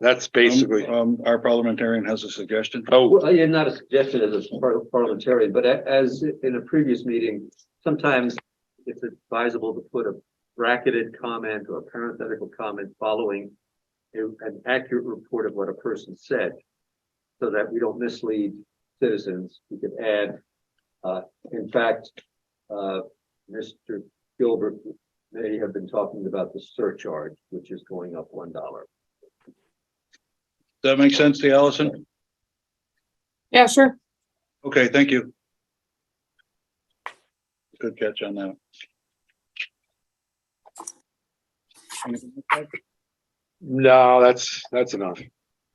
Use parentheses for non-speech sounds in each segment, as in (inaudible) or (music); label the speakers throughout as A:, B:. A: That's basically,
B: Um, our parliamentarian has a suggestion.
A: oh,
C: Well, yeah, not a suggestion as a par- parliamentarian, but a- as in a previous meeting, sometimes it's advisable to put a bracketed comment or parenthetical comment following a- an accurate report of what a person said, so that we don't mislead citizens. We could add, uh, in fact, uh, Mr. Gilbert may have been talking about the surcharge, which is going up one dollar.
B: Does that make sense to you, Allison?
D: Yeah, sure.
B: Okay, thank you. Good catch on that.
A: no, that's, that's enough.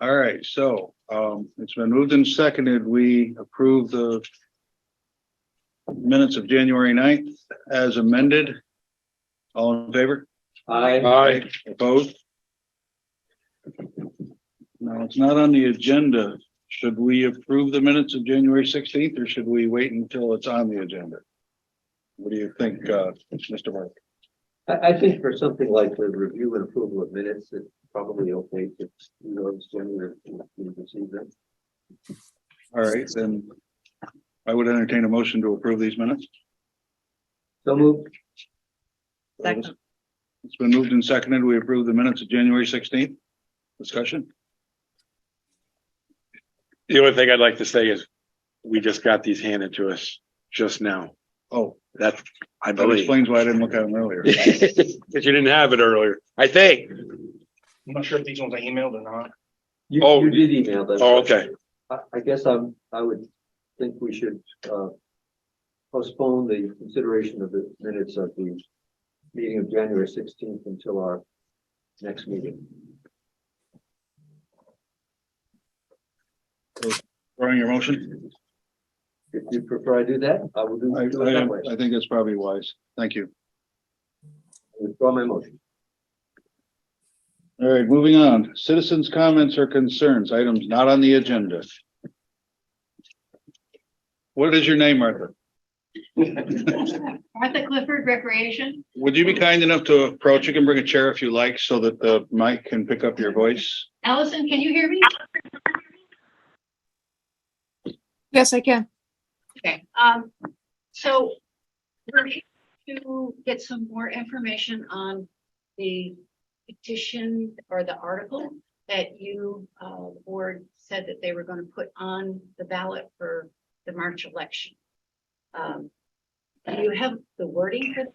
B: All right, so, um, it's been moved and seconded. We approve the minutes of January 9th as amended. All in favor?
C: I,
A: Aye.
B: Opposed? No, it's not on the agenda. Should we approve the minutes of January sixteenth or should we wait until it's on the agenda? What do you think, uh, Mr. Mark?
C: I, I think for something like the review and approval of minutes, it's probably okay to, you know, assume that we receive them.
B: All right, then I would entertain a motion to approve these minutes.
C: So move.
E: Second.
B: It's been moved and seconded. We approve the minutes of January sixteenth. Discussion?
A: The only thing I'd like to say is, we just got these handed to us just now.
B: Oh,
A: That's, I
B: that
A: believe.
B: explains why I didn't look at
A: (laughs)
B: them earlier.
A: Cause you didn't have it earlier, I think.
F: I'm not sure if these ones I emailed or not.
C: You,
A: Oh.
C: you did email them.
A: Oh, okay.
C: I, I guess I'm, I would think we should, uh, postpone the consideration of the minutes of the meeting of January sixteenth until our next meeting.
B: Throwing your motion?
C: If you prefer I do that, I will do
B: I,
C: do it that way.
B: I, I think that's probably wise. Thank you.
C: Withdraw my motion.
B: All right, moving on. Citizens' comments or concerns, items not on the agenda. What is your name, Martha?
E: Martha Clifford Recreation.
B: Would you be kind enough to approach? You can bring a chair if you like so that the mic can pick up your voice.
E: Allison, can you hear me?
D: Yes, I can.
E: Okay, um, so we're here to get some more information on the petition or the article that you, uh, the board said that they were gonna put on the ballot for the March election. Um, do you have the wording for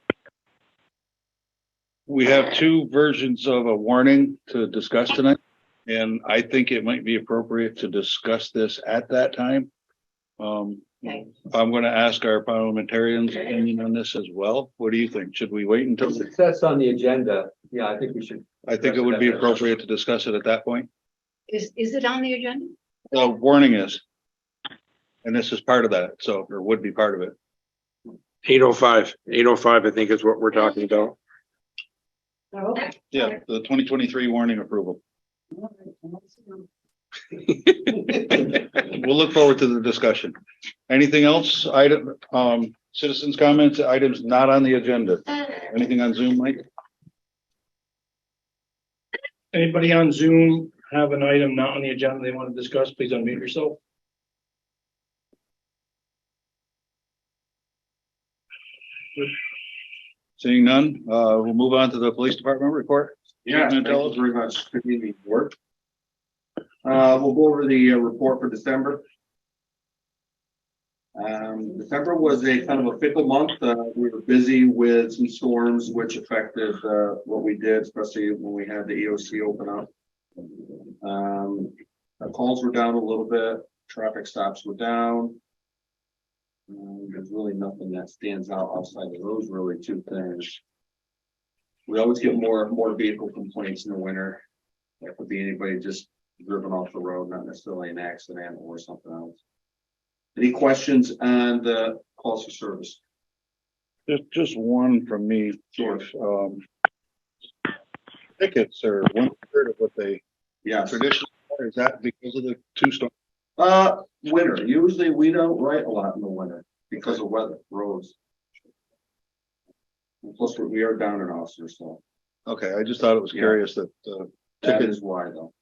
B: We have two versions of a warning to discuss tonight. And I think it might be appropriate to discuss this at that time. Um,
E: Okay.
B: I'm going to ask our parliamentarians opinion on this as well. What do you think? Should we wait until?
C: Success on the agenda. Yeah, I think we should
B: I think it would be appropriate to discuss it at that point.
E: Is, is it on the agenda?
B: The uh, warning is. And this is part of that, so, or would be part of it.
A: Eight oh five. Eight oh five. I think is what we're talking about.
E: No. Okay.
B: Yeah, the twenty twenty-three warning approval. (laughs) (laughs) We'll look forward to the discussion. Anything else? Item, um, citizens' comments, items not on the agenda. Anything on Zoom, Mike?
F: Anybody on Zoom have an item not on the agenda they want to discuss? Please unmute yourself.
B: Seeing none, uh, we'll move on to the police department report.
G: Yeah,
B: Can you
G: thank
B: tell
G: you
B: us?
G: very much. Good evening, board. Uh, we'll go over the uh, report for December. Um, December was a kind of a fickle month. Uh, we were busy with some storms which affected, uh, what we did, especially when we had the EOC open up. Um, our calls were down a little bit, traffic stops were down. Um, there's really nothing that stands out outside of those really two things. We always get more, more vehicle complaints in the winter. That could be anybody just driven off the road, not necessarily an accident or something else. Any questions on the calls for service?
B: Just, just one from me, Chief. Um, tickets are one third of what they
G: Yes.
B: traditionally, are. is that because of the two storms?
G: Uh, winter, usually we don't write a lot in the winter because of weather, roads. And Plus, we are down in Austin, so
B: Okay, I just thought it was
G: Yeah.
B: curious that, uh,
G: that
B: Ticket.
G: is why though.